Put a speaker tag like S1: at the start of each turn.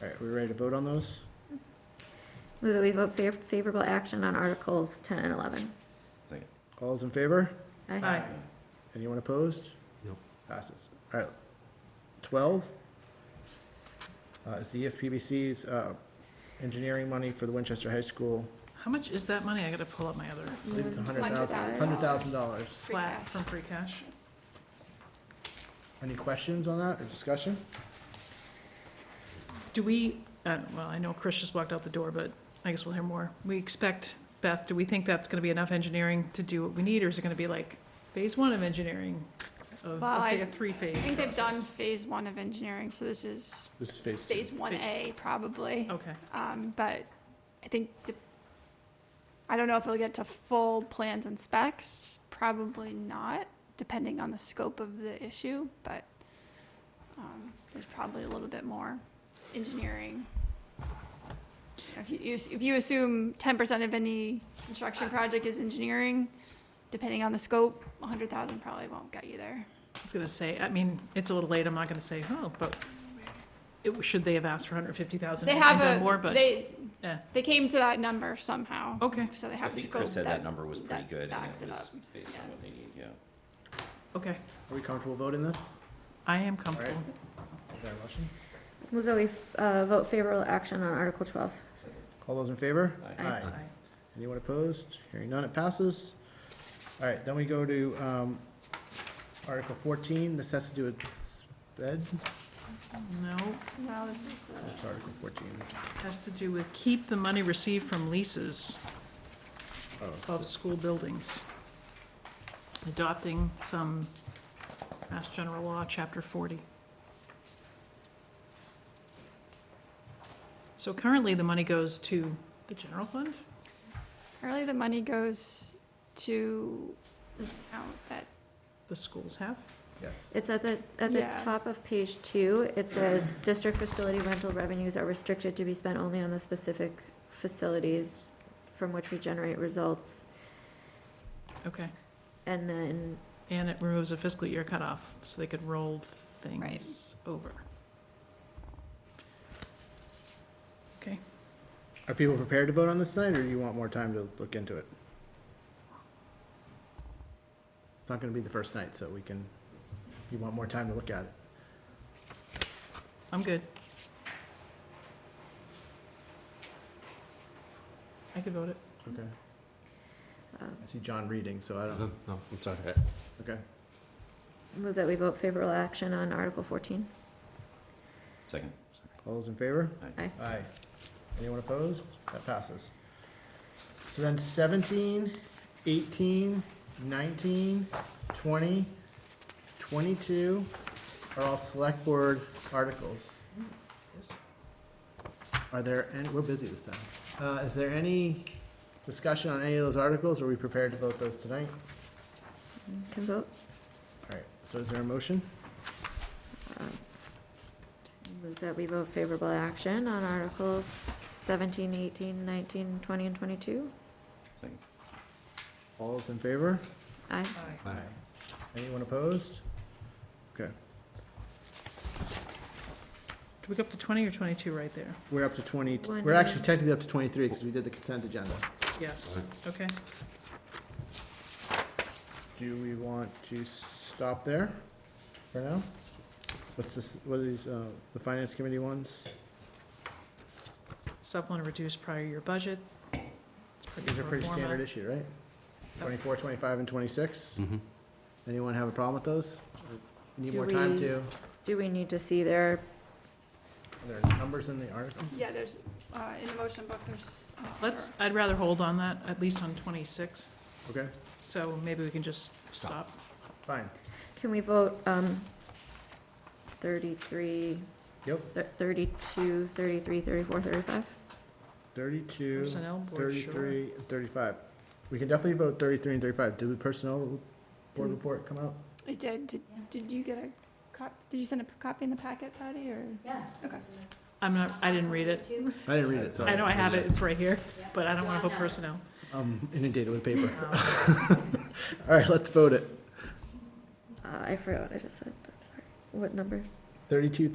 S1: All right, we ready to vote on those?
S2: Move that we vote fa- favorable action on Articles 10 and 11.
S3: Second.
S1: All's in favor?
S2: Aye.
S1: Anyone opposed?
S4: No.
S1: Passes. All right. Twelve uh, is the EFPBC's uh, engineering money for the Winchester High School.
S5: How much is that money? I gotta pull up my other
S1: I believe it's a hundred thousand,
S2: $100,000.
S1: hundred thousand dollars.
S2: Free
S5: flat
S2: cash.
S5: from free cash.
S1: Any questions on that or discussion?
S5: Do we, uh, well, I know Chris just walked out the door, but I guess we'll hear more. We expect, Beth, do we think that's gonna be enough engineering to do what we need, or is it gonna be like phase one of engineering? Of,
S6: Well,
S5: of
S6: I-
S5: like a three-phase
S6: I think they've done
S5: process?
S6: phase one of engineering, so this is
S1: This is phase two.
S6: phase one A probably.
S5: Okay,
S6: Um, but I think, de- I don't know if they'll get to full plans and specs, probably not, depending on the scope of the issue, but, um, there's probably a little bit more engineering. If you- you, s- if you assume ten percent of any construction project is engineering, depending on the scope, a hundred thousand probably won't get you there.
S5: I was gonna say, I mean, it's a little late, I'm not gonna say, oh, but it, should they have asked for hundred and fifty thousand
S6: They
S5: and
S6: have
S5: done
S6: a,
S5: more, but,
S6: they,
S5: eh,
S6: they came to that number somehow.
S5: okay,
S6: So they
S3: I
S6: have a
S3: think
S6: scope
S3: Chris said that
S6: that,
S3: number was pretty
S6: that
S3: good, and
S6: backs
S3: it
S6: it
S3: was
S6: up.
S3: based on
S6: Yeah.
S3: what they need, yeah.
S5: okay.
S1: Are we comfortable voting this?
S5: I am
S1: All right.
S5: comfortable.
S1: Is there a motion?
S2: Move that we uh, vote favorable action on Article 12.
S1: All those in favor?
S3: Aye.
S5: Aye.
S1: Anyone opposed? Hearing none, it passes. All right, then we go to um, Article 14. This has to do with sped.
S5: No,
S6: no, this is the.
S1: It's Article 14.
S5: has to do with keep the money received from leases
S1: Oh,
S5: of school buildings. Adopting some Mass General Law, Chapter 40. So currently, the money goes to the general fund?
S6: Currently, the money goes to the account that,
S5: The schools have?
S1: yes.
S2: It's at the, at the
S6: Yeah.
S2: top of page two. It says, "District facility rental revenues are restricted to be spent only on the specific facilities from which we generate results."
S5: Okay.
S2: And then,
S5: And it removes a fiscal year cutoff, so they could roll things over. Okay.
S1: Are people prepared to vote on this tonight, or you want more time to look into it? It's not going to be the first night, so we can, you want more time to look at it.
S5: I'm good. I could vote it.
S1: Okay.
S2: Um.
S1: I see John reading, so I don't,
S4: No, no, I'm sorry.
S1: okay.
S2: move that we vote favorable action on Article 14.
S3: Second.
S1: All those in favor?
S2: Aye.
S1: Aye. Anyone opposed? That passes. So then 17, 18, 19, 20, 22 are all select board articles. Are there, and we're busy this time. Uh, is there any discussion on any of those articles? Are we prepared to vote those tonight?
S2: Can vote.
S1: All right, so is there a motion?
S2: Move that we vote favorable action on Articles 17, 18, 19, 20, and 22.
S3: Second.
S1: All those in favor?
S2: Aye.
S4: Aye.
S1: Anyone opposed? Okay,
S5: Do we go up to twenty or twenty-two right there?
S1: we're up to twenty,
S2: One.
S1: we're actually technically up to twenty-three because we did the consent agenda.
S5: Yes, okay.
S1: Do we want to stop there for now? What's this, what are these, uh, the finance committee ones?
S5: Supplement or reduce prior year budget. It's
S1: These are
S5: pro
S1: pretty
S5: forma.
S1: standard issue, right?
S5: Yep.
S1: Twenty-four, twenty-five, and twenty-six?
S4: Mhm.
S1: Anyone have a problem with those? Or Need
S2: Do
S1: more time
S2: we-
S1: to, are
S2: Do we need to see their
S1: there numbers in the articles?
S6: yeah, there's, uh, in the motion book, there's. uh,
S5: Let's, I'd rather hold on that, at least on twenty-six,
S1: Okay,
S5: so maybe we can just stop.
S1: fine,
S2: Can we vote, um, thirty-three,
S1: yep,
S2: thir- thirty-two, thirty-three, thirty-four, thirty-five?
S1: thirty-two,
S5: Personnel board, sure.
S1: thirty-three, and thirty-five. We can definitely vote thirty-three and thirty-five. Did the personnel board
S2: Didn't-
S1: report come out?
S6: It did, did, did you get a cop, did you send a copy in the packet, Patty, or?
S2: Yeah.
S6: Okay.
S5: I'm not, I didn't read it.
S1: I didn't read it, sorry.
S5: I know I have it, it's right here, but I don't wanna put personnel.
S1: I'm inundated with paper.
S5: Um,
S1: All right, let's vote it.
S2: Uh, I forgot what I just said, I'm sorry. What numbers?
S1: Thirty-two,